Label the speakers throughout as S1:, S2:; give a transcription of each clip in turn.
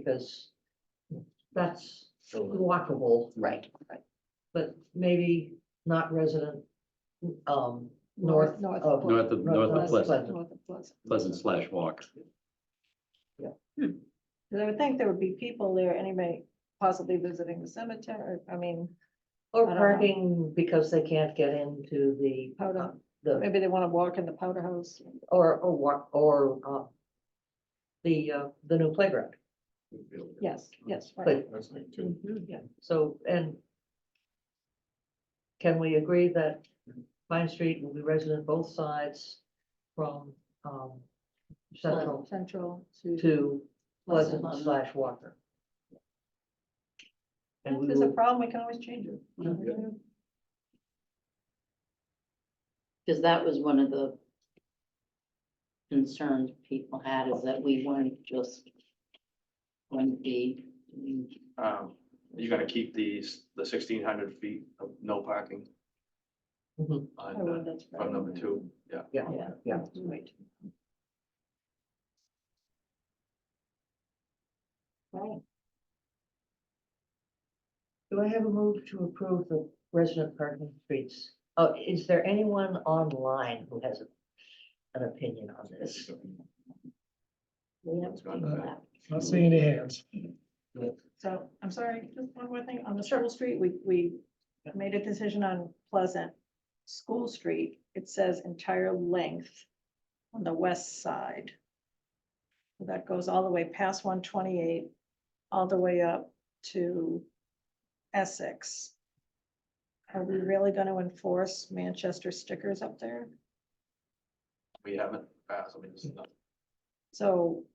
S1: because that's walkable,
S2: uh, Right, right.
S1: but maybe not resident, um, north
S2: North
S1: of.
S2: Pleasant.
S3: North of- north of
S1: Pleasant.
S3: Pleasant.
S2: North of Pleasant.
S3: Pleasant slash walk.
S2: Because I would think there would be people there anyway, possibly visiting the cemetery, I mean,
S1: Or
S2: I don't know.
S1: parking because they can't get into the,
S2: Hold
S1: uh,
S2: on.
S1: the,
S2: maybe they want to walk in the powder house.
S1: or, or walk, or, uh, the, uh, the new playground.
S2: Yes, yes, right.
S1: But,
S4: That's like two.
S2: Mhm, yeah.
S1: so, and can we agree that Pine Street will be resident both sides from, um, Central
S2: Central to.
S1: to Pleasant slash Walker? And
S2: If
S1: we
S2: there's a
S1: will,
S2: problem, we can always change it.
S5: Mhm. Because that was one of the concerns people had is that we weren't just going to be, doing-
S6: Um, you're gonna keep these, the sixteen hundred feet of no parking
S1: Mhm.
S2: Oh, well,
S6: on,
S2: that's
S6: uh,
S2: right.
S6: from number two, yeah.
S1: yeah,
S2: Yeah.
S1: yeah.
S2: Right. Right.
S1: Do I have a move to approve the resident parking streets? Oh, is there anyone online who has a- an opinion on this?
S5: we have
S6: It's
S5: to
S6: gone uh,
S5: think
S6: by.
S5: about.
S7: Not seeing any hands.
S2: So I'm sorry, just one more thing. On the Circle Street, we, we made a decision on Pleasant School Street. It says entire length on the west side. That goes all the way past one twenty-eight, all the way up to Essex. Are we really gonna enforce Manchester stickers up there?
S6: We haven't passed, I mean, this is not-
S2: So,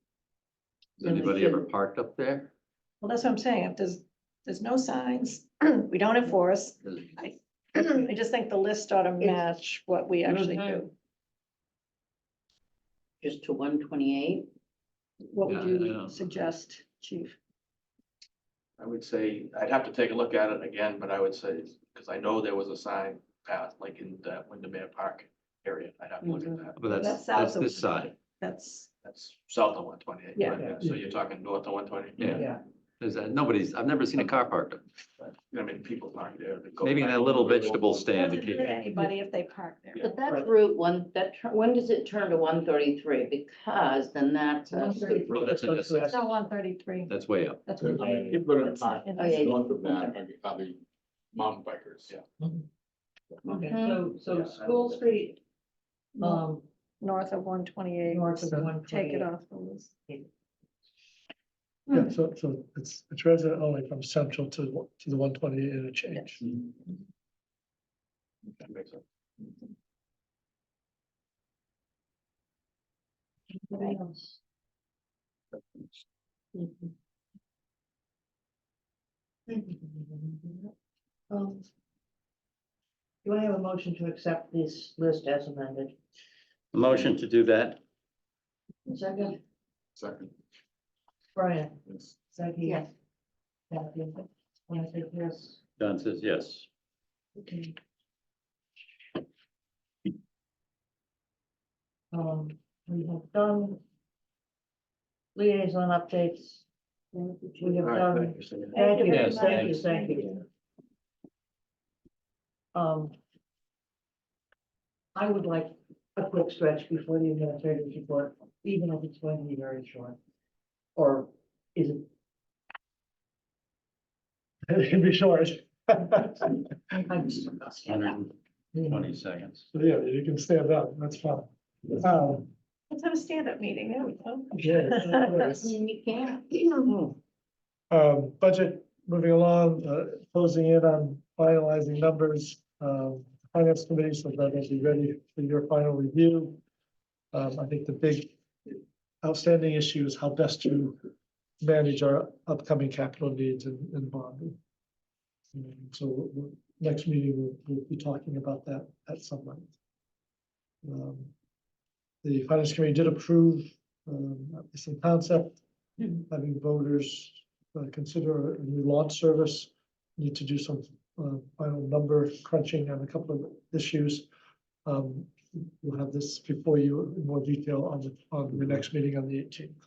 S3: Has anybody ever parked up there?
S2: well, that's what I'm saying. If there's, there's no signs, we don't enforce.
S3: 'Cause
S5: Mm-hmm.
S2: I just think the list ought to
S1: It's-
S2: match what we actually do.
S5: Just to one twenty-eight,
S2: What would
S3: Yeah, I
S2: you
S3: know.
S2: suggest, chief?
S6: I would say, I'd have to take a look at it again, but I would say, because I know there was a sign passed, like in the Windermere Park area, I'd have to look at that.
S3: But
S2: That's
S3: that's,
S2: south
S3: that's
S2: of-
S3: this side.
S2: That's,
S6: That's south of one twenty-eight.
S2: Yeah.
S6: So you're talking north of one twenty?
S3: Yeah. There's, uh, nobody's, I've never seen a car parked up.
S6: I mean, people aren't there. they go
S3: Maybe in
S6: back.
S3: that little vegetable stand.
S2: doesn't
S3: it
S2: hurt
S3: could-
S2: anybody if they park there.
S6: Yeah.
S5: but that's
S1: Right.
S5: Route one, that, tur- when does it turn to one thirty-three? Because then that's, a-
S3: Well, that's a
S2: It's not one thirty-three.
S3: That's way up.
S2: That's.
S4: There's
S2: one-
S4: many People in
S2: that's
S4: park,
S2: not in
S5: Oh,
S2: this-
S5: yeah, yeah.
S4: north of that, are the- are the mountain bikers.
S6: Yeah.
S1: Okay, so,
S5: Mhm.
S1: so
S6: Yeah, I
S1: School
S6: would-
S1: Street,
S2: no,
S1: um,
S2: North of one twenty-eight,
S1: north of one
S2: take it
S1: twenty-eight.
S2: off the list.
S7: Yeah, so, so it's, it's resident only from central to, the- to the one twenty interchange.
S6: That makes sense.
S2: Right.
S5: Mhm.
S1: Um, Do I have a motion to accept this list as amended?
S3: Motion to do that?
S1: Second,
S4: Second.
S1: Brian,
S4: yes.
S1: Becky.
S5: Yes.
S1: Kathy, and I think yes.
S3: Don says yes.
S1: Okay. Um, we have done liaison updates. We have
S6: All right,
S1: done,
S6: thank you, Cindy.
S1: thank you,
S3: Yes,
S1: thank you,
S3: thanks.
S1: thank you. Um, I would like a quick stretch before the administrative report, even if it's going to be very short. Or is it,
S7: It can be short. Yeah,
S1: I'm just.
S3: Hundred and twenty seconds.
S7: you can stand up, that's fine. Um,
S2: Let's have a stand-up meeting, there we go.
S7: yeah, that's nice.
S5: You can't.
S7: Um, budget moving along, uh, closing in on finalizing numbers, um, finance committee, so that will be ready for your final review. Um, I think the big outstanding issue is how best to manage our upcoming capital needs and, and bonding. And So, we'll- we'll- next meeting, we'll, we'll be talking about that at some length. Um, The finance committee did approve, um, at least in concept, having voters uh, consider a new launch service. Need to do some uh, final number crunching on a couple of issues. Um, We'll have this before you in more detail on the, on the next meeting on the eighteenth.